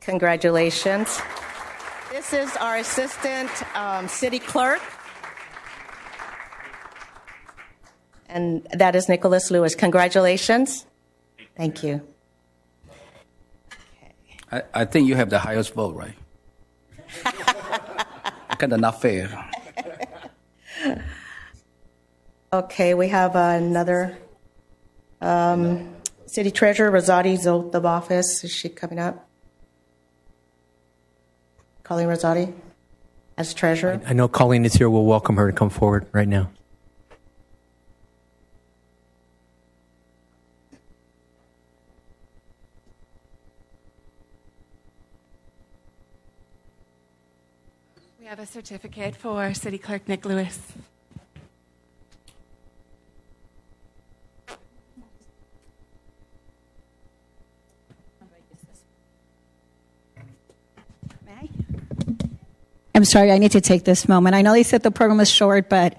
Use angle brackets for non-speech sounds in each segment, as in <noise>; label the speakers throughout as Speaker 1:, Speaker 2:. Speaker 1: Congratulations. This is our Assistant um, City Clerk. And that is Nicholas Lewis. Congratulations. Thank you.
Speaker 2: I, I think you have the highest vote, right? kind of not fair.
Speaker 1: Okay, we have another um, City Treasurer, Rosati's oath of office. Is she coming up? Colleen Rosati as Treasurer.
Speaker 3: I know Colleen is here. We'll welcome her to come forward right now.
Speaker 4: We have a certificate for City Clerk Nick Lewis.
Speaker 5: May I? am sorry, I need to take this moment. I know they said the program was short, but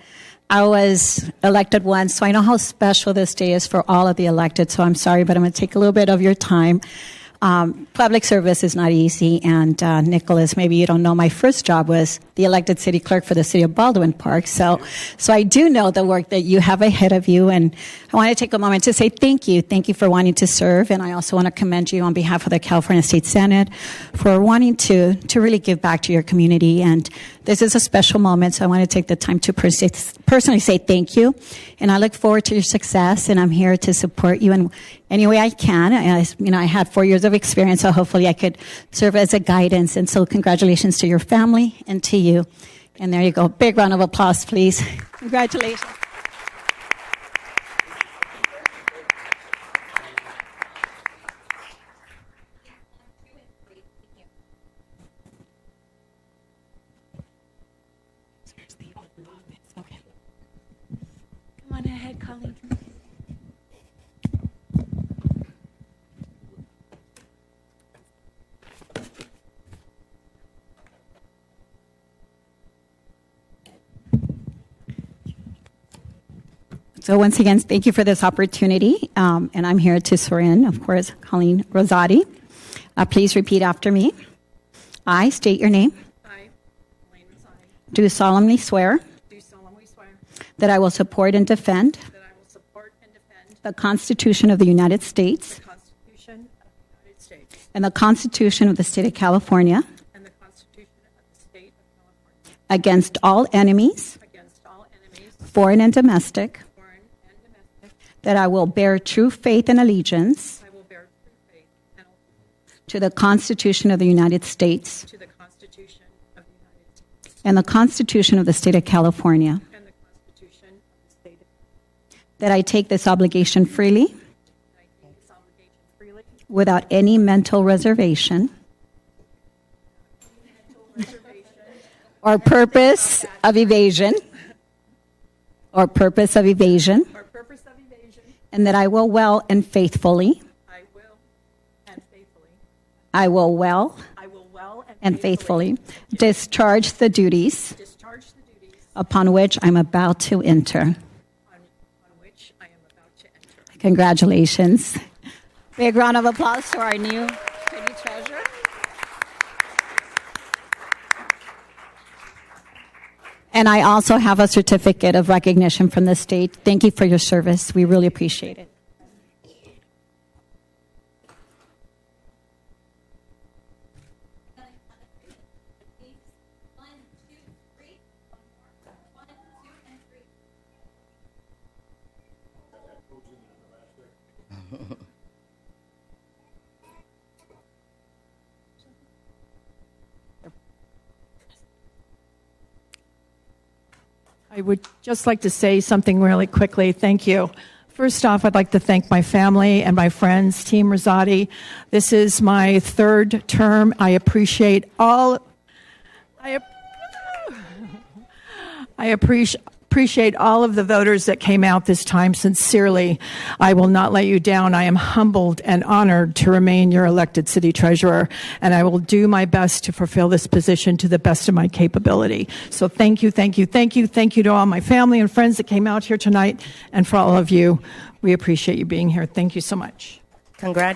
Speaker 5: I was elected once, so I know how special this day is for all of the elected. So I'm sorry, but I'm going to take a little bit of your time. Um, public service is not easy, and uh, Nicholas, maybe you don't know, my first job was the elected city clerk for the city of Baldwin Park. So, so I do know the work that you have ahead of you, and I want to take a moment to say thank you, thank you for wanting to serve, and I also want to commend you on behalf of the California State Senate for wanting to to really give back to your community. And this is a special moment, so I want to take the time to pers- personally say thank you, and I look forward to your success, and I'm here to support you in any way I can. I, you know, I had four years of experience, so hopefully I could serve as a guidance. And so, congratulations to your family and to you. And there you go. Big round of applause, please. <laughs> Congratulations.
Speaker 4: Okay. Come on ahead, Colleen.
Speaker 5: So once again, thank you for this opportunity. Um, and I'm here to swear in, of course, Colleen Rosati. Uh, please repeat after me. I state your name.
Speaker 6: I, Elaine Rosati,
Speaker 5: Do solemnly swear
Speaker 6: do solemnly swear
Speaker 5: that I will support and defend
Speaker 6: that I will support and defend
Speaker 5: the Constitution of the United States
Speaker 6: the Constitution of the United States
Speaker 5: and the Constitution of the State of California
Speaker 6: and the Constitution of the State of California
Speaker 5: against all enemies,
Speaker 6: against all enemies,
Speaker 5: foreign and domestic,
Speaker 6: foreign and domestic.
Speaker 5: that I will bear true faith and allegiance
Speaker 6: I will bear true faith and allegiance
Speaker 5: to the Constitution of the United States
Speaker 6: to the Constitution of the United States
Speaker 5: and the Constitution of the State of California,
Speaker 6: and the Constitution of the State of
Speaker 5: that I take this obligation freely
Speaker 6: California. I take this obligation freely
Speaker 5: without any mental reservation or purpose of evasion or purpose of evasion
Speaker 6: for purpose of evasion.
Speaker 5: and that I will well and faithfully
Speaker 6: I will and faithfully,
Speaker 5: I will well
Speaker 6: I will well
Speaker 5: and faithfully discharge the duties
Speaker 6: discharge the duties
Speaker 5: upon which I'm about to enter.
Speaker 6: on on which I am about to enter.
Speaker 5: Congratulations. Big round of applause for our new city treasurer. And I also have a certificate of recognition from the state. Thank you for your service. We really appreciate it.
Speaker 6: I would just like to say something really quickly. Thank you. First off, I'd like to thank my family and my friends, Team Rosati. This is my third term. I appreciate all. I, ap- I appreciate. Appreciate all of the voters that came out this time sincerely. I will not let you down. I am humbled and honored to remain your elected city treasurer, and I will do my best to fulfill this position to the best of my capability. So thank you, thank you, thank you, thank you to all my family and friends that came out here tonight, and for all of you. We appreciate you being here. Thank you so much.
Speaker 1: Congratulations.